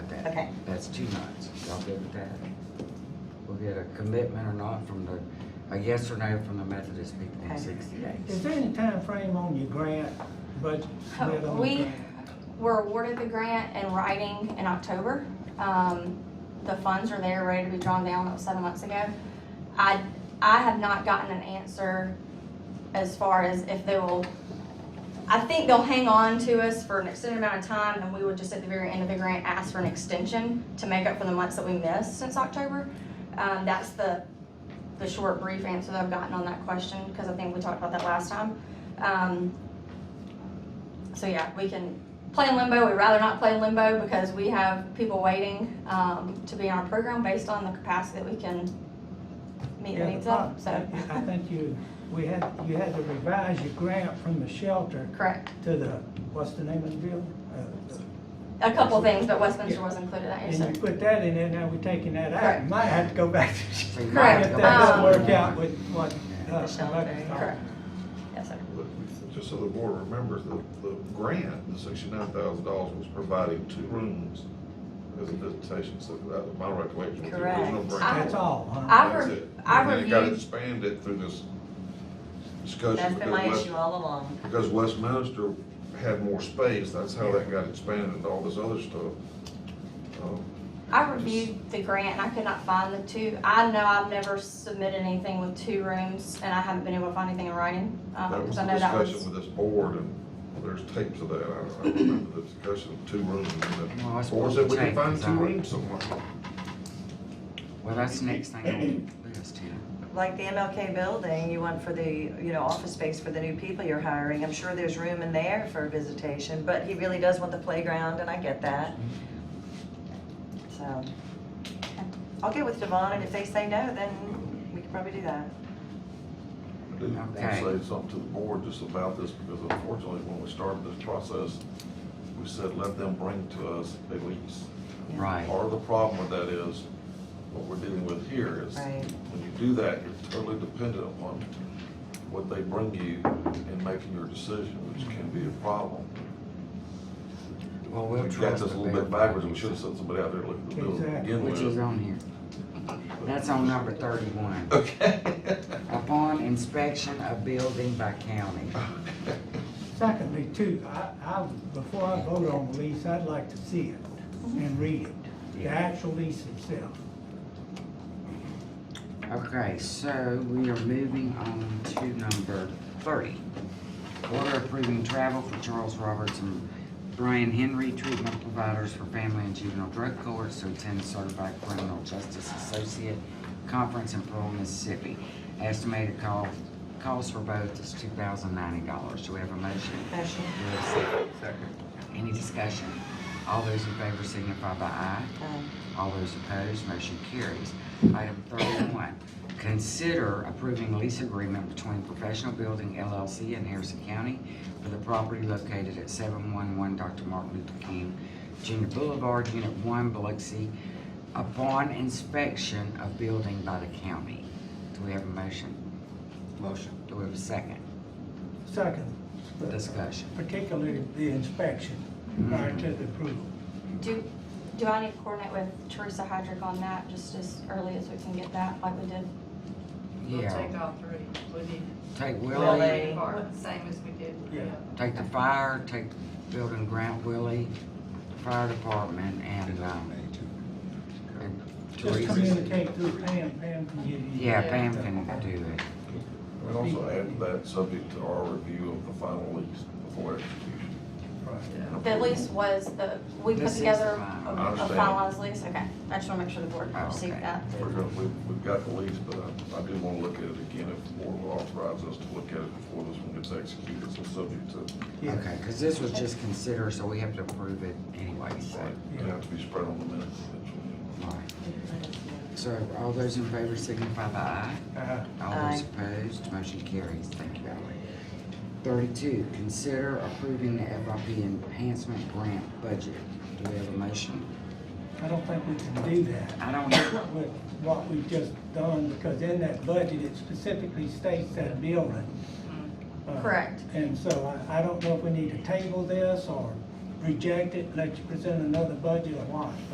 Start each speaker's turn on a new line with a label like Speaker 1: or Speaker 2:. Speaker 1: Okay,
Speaker 2: That's two nights. Y'all good with that? We'll get a commitment or not from the, a yes or no from the Methodist people in
Speaker 1: Okay.
Speaker 2: sixty
Speaker 3: Is
Speaker 2: days.
Speaker 3: there any time frame on your grant budget? split on the
Speaker 4: Oh, We
Speaker 3: grant?
Speaker 4: were awarded the grant in writing in October. Um, the funds are there, ready to be drawn down that was seven months ago. I, I have not gotten an answer as far as if they will, I think they'll hang on to us for an extended amount of time and we would just at the very end of the grant ask for an extension to make up for the months that we missed since October. Um, that's the, the short brief answer that I've gotten on that question, because I think we talked about that last time. Um, so yeah, we can play in limbo. We'd rather not play in limbo because we have people waiting um, to be on our program based on the capacity that we can meet the
Speaker 3: Yeah, the
Speaker 4: needs of.
Speaker 3: part-
Speaker 4: So,
Speaker 3: I I think you, we had, you had to revise your grant from the shelter
Speaker 4: correct.
Speaker 3: to the, what's the name of the building? Uh, the-
Speaker 4: A couple things, but Westminster was included. I guess.
Speaker 3: And you put that in there, now we're taking that out,
Speaker 4: Correct.
Speaker 3: You might have to go back to.
Speaker 2: We might
Speaker 4: Correct,
Speaker 3: If that
Speaker 2: go back to
Speaker 3: doesn't
Speaker 4: um,
Speaker 2: the
Speaker 3: work out with what, uh,
Speaker 4: The shelter,
Speaker 3: Rebecca
Speaker 4: correct.
Speaker 3: thought.
Speaker 4: Yes, sir.
Speaker 5: But Just so the board remembers, the, the grant, the sixty-nine thousand dollars was providing two rooms as a visitation, so that was my recollection. was the original
Speaker 1: Correct.
Speaker 5: grant.
Speaker 3: That's all, huh?
Speaker 4: I- I've
Speaker 5: That's
Speaker 4: re-
Speaker 5: it.
Speaker 4: I've
Speaker 5: And then it got
Speaker 4: reviewed-
Speaker 5: expanded through this
Speaker 1: that's
Speaker 5: discussion
Speaker 1: been my
Speaker 5: because West,
Speaker 1: issue all along.
Speaker 5: because Westminster had more space, that's how that got expanded and all this other stuff. Um,
Speaker 4: I reviewed the grant and I could not find the two. I know I've never submitted anything with two rooms and I haven't been able to find anything in writing. um,
Speaker 5: That was
Speaker 4: because
Speaker 5: the
Speaker 4: I know that was-
Speaker 5: discussion with this board, and there's tapes of that, I, I remember the discussion of two rooms,
Speaker 2: Well,
Speaker 5: and
Speaker 2: that's
Speaker 5: the board
Speaker 2: what
Speaker 5: said we
Speaker 2: the
Speaker 5: can find
Speaker 2: tapes
Speaker 5: two
Speaker 2: are.
Speaker 5: rooms somewhere.
Speaker 2: Well, that's the next thing on the list here.
Speaker 1: Like the MLK building, you want for the, you know, office space for the new people you're hiring. I'm sure there's room in there for visitation, but he really does want the playground, and I get that. So, I'll get with Devon, and if they say no, then we can probably do that.
Speaker 5: I do want to
Speaker 2: Okay.
Speaker 5: say something to the board just about this, because unfortunately, when we started this process, we said, let them bring to us a lease.
Speaker 2: Right.
Speaker 5: Part of the problem with that is, what we're dealing with here is,
Speaker 1: Right.
Speaker 5: when you do that, you're totally dependent upon what they bring you in making your decision, which can be a problem.
Speaker 2: Well,
Speaker 5: We
Speaker 2: we'll
Speaker 5: got
Speaker 2: trust
Speaker 5: this
Speaker 2: the
Speaker 5: a little bit
Speaker 2: building.
Speaker 5: backwards, we should have sent somebody out there to look at the building to begin
Speaker 2: Which is
Speaker 5: with.
Speaker 2: on here. That's on number thirty-one.
Speaker 5: Okay.
Speaker 2: Upon inspection of building by county.
Speaker 3: Secondly, too, I, I, before I vote on the lease, I'd like to see it and read it, the
Speaker 2: Yeah.
Speaker 3: actual lease itself.
Speaker 2: Okay, so we are moving on to number thirty. Order approving travel for Charles Roberts and Brian Henry, treatment providers for family and juvenile drug courts to attend Certified Criminal Justice Associate Conference in Pearl, Mississippi. Estimated cost, cost for both is two thousand ninety dollars. Do we have a motion?
Speaker 1: Motion.
Speaker 2: Do we have a second? Any discussion? All those in favor signify by aye.
Speaker 1: Um,
Speaker 2: All those opposed, motion carries. Item thirty-one, consider approving lease agreement between Professional Building LLC and Harrison County for the property located at seven-one-one Dr. Martin Luther King Junior Boulevard, Unit One, Biloxi, upon inspection of building by the county. Do we have a motion? Motion. Do we have a second?
Speaker 3: Second.
Speaker 2: Discussion.
Speaker 3: Particularly the inspection
Speaker 2: Mm-hmm.
Speaker 3: prior to the approval.
Speaker 4: Do, do I need to coordinate with Teresa Hydrick on that just as early as we can get that like we did?
Speaker 6: We'll
Speaker 2: Yeah,
Speaker 6: take all three. We need
Speaker 2: take
Speaker 1: Willie.
Speaker 2: Willie,
Speaker 6: the part, same as we did with the
Speaker 3: Yeah.
Speaker 6: other.
Speaker 2: take the fire, take building Grant Willie, fire department, and, um, and
Speaker 3: Just
Speaker 2: Teresa.
Speaker 3: communicate through Pam, Pam can give you.
Speaker 2: Yeah, Pam can do it.
Speaker 5: And also add that subject to our review of the final lease before execution.
Speaker 4: The lease was the, we put
Speaker 2: This is
Speaker 4: together
Speaker 2: fine.
Speaker 4: a
Speaker 5: I
Speaker 4: a
Speaker 5: understand.
Speaker 4: finalized lease? Okay, I just wanna make sure the board
Speaker 2: Oh,
Speaker 4: received
Speaker 2: okay.
Speaker 4: that.
Speaker 5: We're gonna, we've, we've got the lease, but I, I do wanna look at it again if the board will authorize us to look at it before this one gets executed, so subject to,
Speaker 3: Yeah.
Speaker 2: Okay, because this was just considered, so we have to approve it anyway, so.
Speaker 5: right, it'll have to be spread on the minutes eventually.
Speaker 2: all right. So all those in favor signify by aye.
Speaker 3: Uh,
Speaker 2: All those
Speaker 1: Aye.
Speaker 2: opposed, motion carries. Thank you, Valerie. Thirty-two, consider approving the FIP enhancement grant budget. Do we have a motion?
Speaker 3: I don't think we can do that.
Speaker 2: I don't know.
Speaker 3: with what we've just done, because in that budget, it specifically states that building. Uh,
Speaker 4: Correct.
Speaker 3: And so I, I don't know if we need to table this or reject it, let you present another budget or what.